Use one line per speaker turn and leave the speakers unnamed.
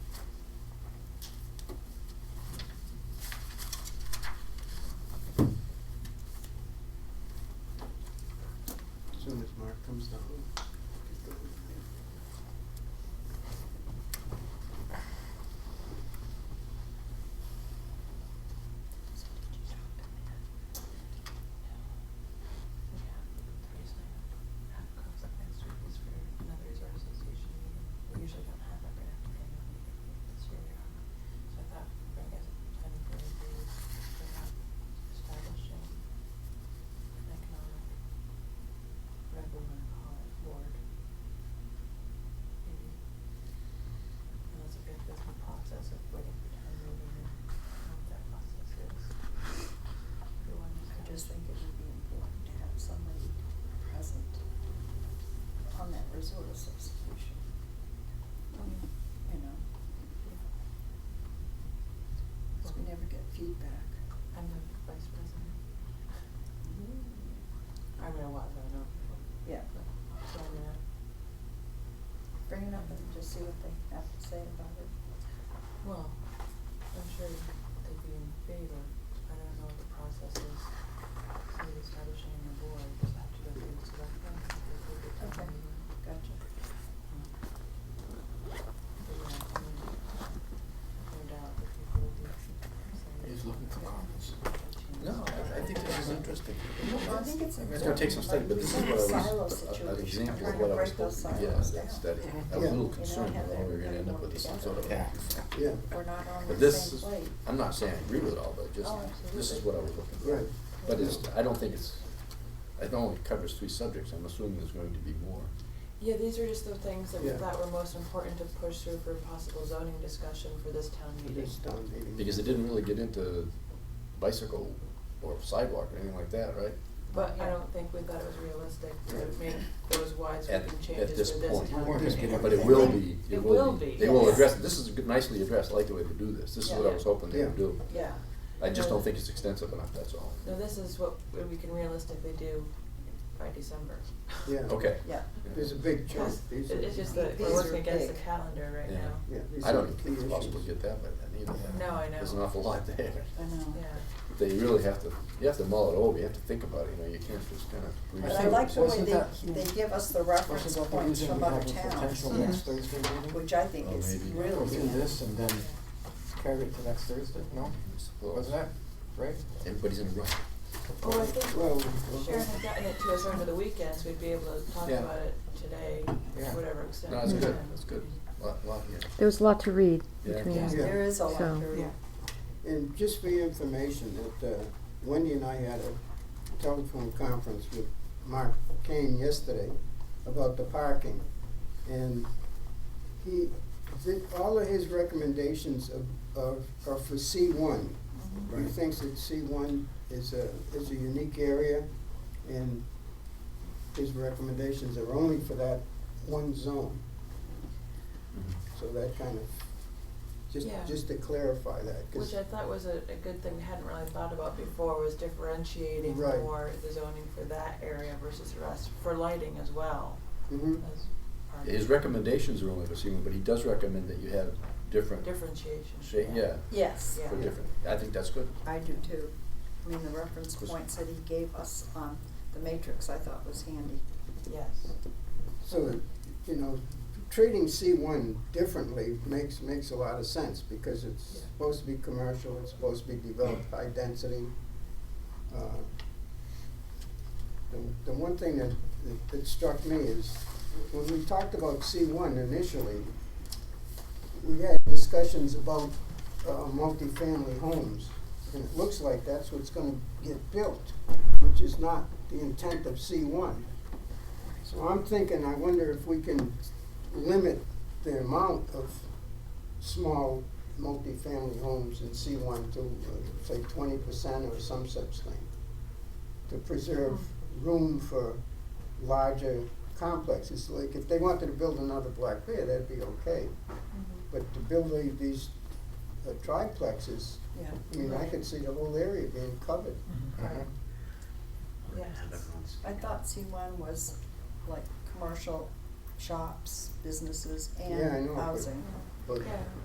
resort of substitution. Um, You know? Because we never get feedback.
I'm the vice president. I mean, I was, I don't know.
Yeah,
So I'm gonna,
bring it up and just see what they have to say about it.
well, I'm sure they'd be in favor. I don't know what the process is. So establishing a board, just have to go through the select board. they approve the town
Okay.
meeting.
Gotcha.
But yeah, I mean, no doubt that people would be saying.
He's looking for comments.
No, I, I think this is interesting.
Well, I think it's
I
important.
mean, it's gonna take some study, but this is
Like,
what I was,
silo
a- a- an
situation,
example
trying
of
to
what I was
break those
supposed to, yeah,
silos
that
down.
study. I
Yeah.
was a
You
little
know,
concerned
have
that we're gonna end up with some
everything
sort of
together.
axe.
Yeah,
We're not on
But
the
this,
same plate.
I'm not saying I agree with it all, but just,
Oh,
this is
absolutely.
what I was looking for.
right.
But it's, I don't think it's, it only covers three subjects, I'm assuming there's going to be more.
Yeah, these are just the things that we
Yeah.
thought were most important to push through for possible zoning discussion for this town
It
meeting.
is town meeting.
Because it didn't really get into bicycle or sidewalk or anything like that, right?
But I
Yeah.
don't think we thought it was realistic
Right.
to make those
At,
wide-sweeping
at this
changes for this
point.
town
We're just
meeting.
getting-
But it will be,
It
it
will
will be,
be,
they will
yes.
address, this is nicely addressed, I like the way they do this, this is what I
Yeah.
was hoping they would
Yeah.
do.
Yeah.
I just
No.
don't think it's extensive enough, that's all.
No, this is what we can realistically do by December.
Yeah.
Okay.
Yeah.
There's a big chunk.
Because
These
it-
are-
it's just that
These
we're
are
working against the
big.
calendar right
Yeah.
now.
Yeah, these
I
are
don't
the
even
key
think it's possible to
issues.
get that by then either.
No, I know.
There's an awful lot there.
I know.
Yeah.
They really have to, you have to mull it over, you have to think about it, you know, you can't just kind of.
But I
Wasn't-
like the way
wasn't
they,
that-
they give us the reference
Wasn't that the
points
reason
from
we
other
have a potential
towns, Hmm.
Mhm.
next Thursday meeting?
which I think
Oh,
is
maybe.
really.
We'll do
good.
this and then carry it to next Thursday, no? Wasn't that, right?
Everybody's in a rush.
Well,
Oh,
I think
Well, we'll-
Sharon had gotten it to us over the weekend, so we'd be able to talk
Yeah.
about it today,
Yeah.
to whatever extent.
No, that's
we
good,
can.
that's good. Lot, lot here.
There was a lot to read
Yeah.
between.
Yeah,
Yeah.
there is a lot
So-
to read.
And just for your information, that uh, Wendy and I had a telephone conference with Mark Kane yesterday about the parking. And he, did, all of his recommendations of, of, are for C one. He thinks that C one is a, is a unique area and his recommendations are only for that one zone. So that kind of, just,
Yeah.
just to clarify that, 'cause-
Which I thought was a, a good thing we hadn't really thought about before, was differentiating
Right.
for the zoning for that area versus the rest, for lighting as well,
Mhm.
as part
His
of
recommendations are only for Seaman, but he does recommend that you have different
differentiation.
shape, yeah,
Yes,
Yeah.
for different, I think that's good.
I do too. I mean, the reference
Was-
points that he gave us on the matrix, I thought was handy.
Yes.
So, that, you know, treating C one differently makes, makes a lot of sense, because it's
Yeah.
supposed to be commercial, it's supposed to be developed high density. Uh, The, the one thing that, that- that struck me is, when we talked about C one initially, we had discussions about, uh, multifamily homes, and it looks like that's what's gonna get built, which is not the intent of C one. So I'm thinking, I wonder if we can limit the amount of small multifamily homes in C one to, uh, say, twenty percent or some such thing, to preserve room for larger complexes. Like, if they wanted to build another Black Bear, that'd be okay, but to build a- these uh, triplexes,
Yeah.
I mean, I could see the whole area being covered.
Right.
Uh-huh.
Yes.
I thought C one was like commercial shops, businesses
Yeah, I know,
and
but-
housing.
But
Yeah.